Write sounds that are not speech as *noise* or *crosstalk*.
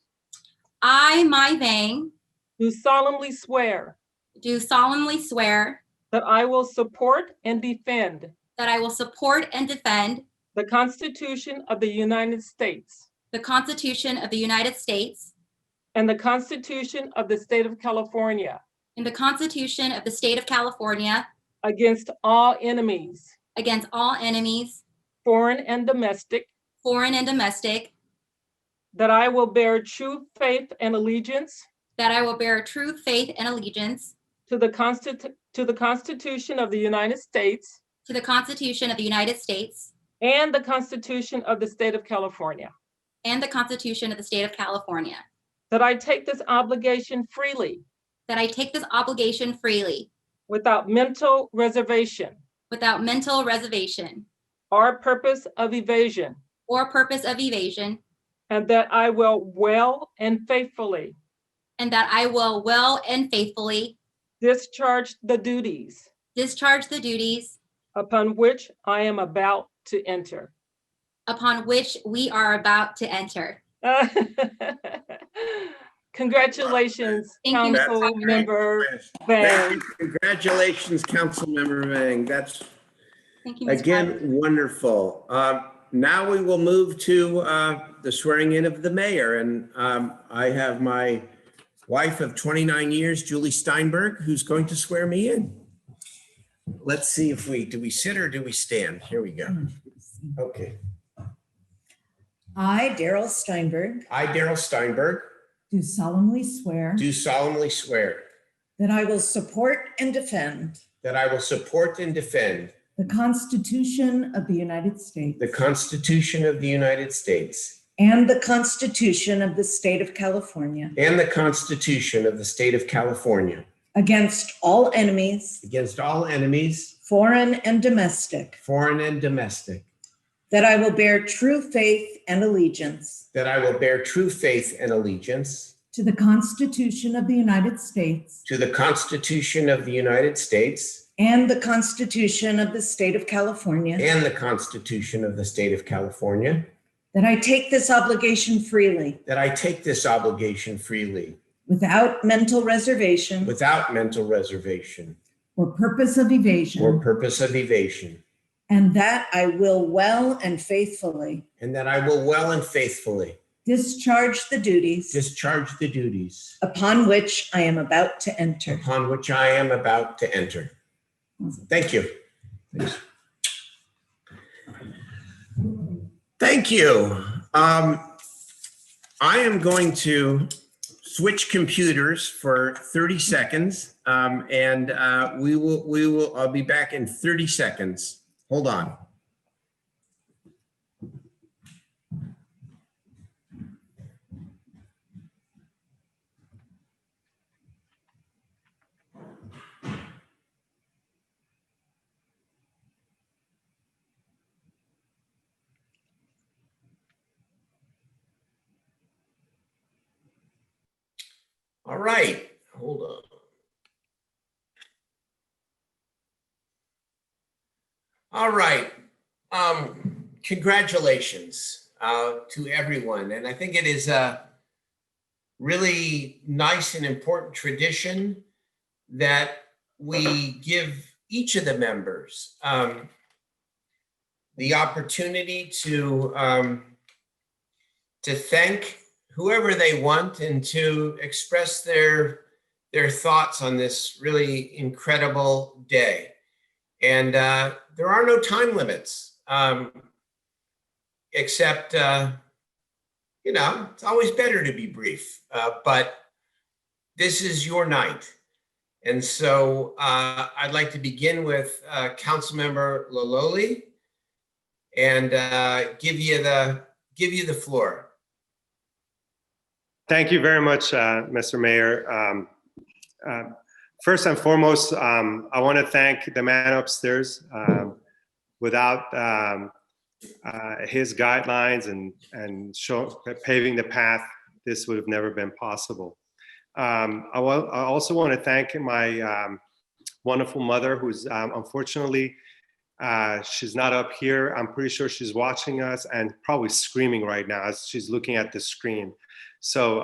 I, My Vang, do solemnly swear do solemnly swear that I will support and defend that I will support and defend the Constitution of the United States the Constitution of the United States and the Constitution of the State of California and the Constitution of the State of California against all enemies, against all enemies, foreign and domestic, foreign and domestic, that I will bear true faith and allegiance that I will bear true faith and allegiance to the Constitu- to the Constitution of the United States to the Constitution of the United States and the Constitution of the State of California, and the Constitution of the State of California, that I take this obligation freely that I take this obligation freely without mental reservation without mental reservation or purpose of evasion, or purpose of evasion, and that I will well and faithfully and that I will well and faithfully discharge the duties discharge the duties upon which I am about to enter. *laughs* upon which we are about to enter. Congratulations, Thank you, Ms. Council Parker. Member Yes. Thank Bang. you. Congratulations, Councilmember Mang. That's, Thank you. Ms. again, Broderick. wonderful. Um, Now we will move to uh, the swearing in of the mayor, and um, I have my wife of 29 years, Julie Steinberg, who's going to swear me in. Let's see if we, do we sit or do we stand? Here we go. Okay. I, Daryl Steinberg, I, Daryl Steinberg, do solemnly swear do solemnly swear that I will support and defend that I will support and defend the Constitution of the United States the Constitution of the United States and the Constitution of the State of California And the Constitution of the State of California. against all enemies, Against all enemies, foreign and domestic, foreign and domestic. that I will bear true faith and allegiance That I will bear true faith and allegiance to the Constitution of the United States to the Constitution of the United States and the Constitution of the State of California, and the Constitution of the State of California. that I take this obligation freely That I take this obligation freely without mental reservation without mental reservation or purpose of evasion. or purpose of evasion. And that I will well and faithfully And that I will well and faithfully discharge the duties discharge the duties upon which I am about to enter. upon which I am about to enter. Thank you. Thank you. Um, I am going to switch computers for 30 seconds. um, and, uh, we will, we will, I'll be back in 30 seconds. Hold on. All right, hold on. All right, um, congratulations, uh, to everyone, and I think it is a really nice and important tradition that we give each of the members, um, the opportunity to, um, to thank whoever they want and to express their their thoughts on this really incredible day. And uh, there are no time limits, um, except uh, you know it's always better to be brief. Uh, but this is your night, and so uh, I'd like to begin with uh, Councilmember Laloli and uh, give you the give you the floor. Thank you very much, uh, Mr. Mayor. Um, uh, First and foremost, um, I want to thank the man upstairs. Um, Without um, uh, his guidelines and, and show- paving the path, this would have never been possible. Um, I wa- I also want to thank my um, wonderful mother, who's um, unfortunately, uh, she's not up here. I'm pretty sure she's watching us and probably screaming right now as she's looking at the screen. So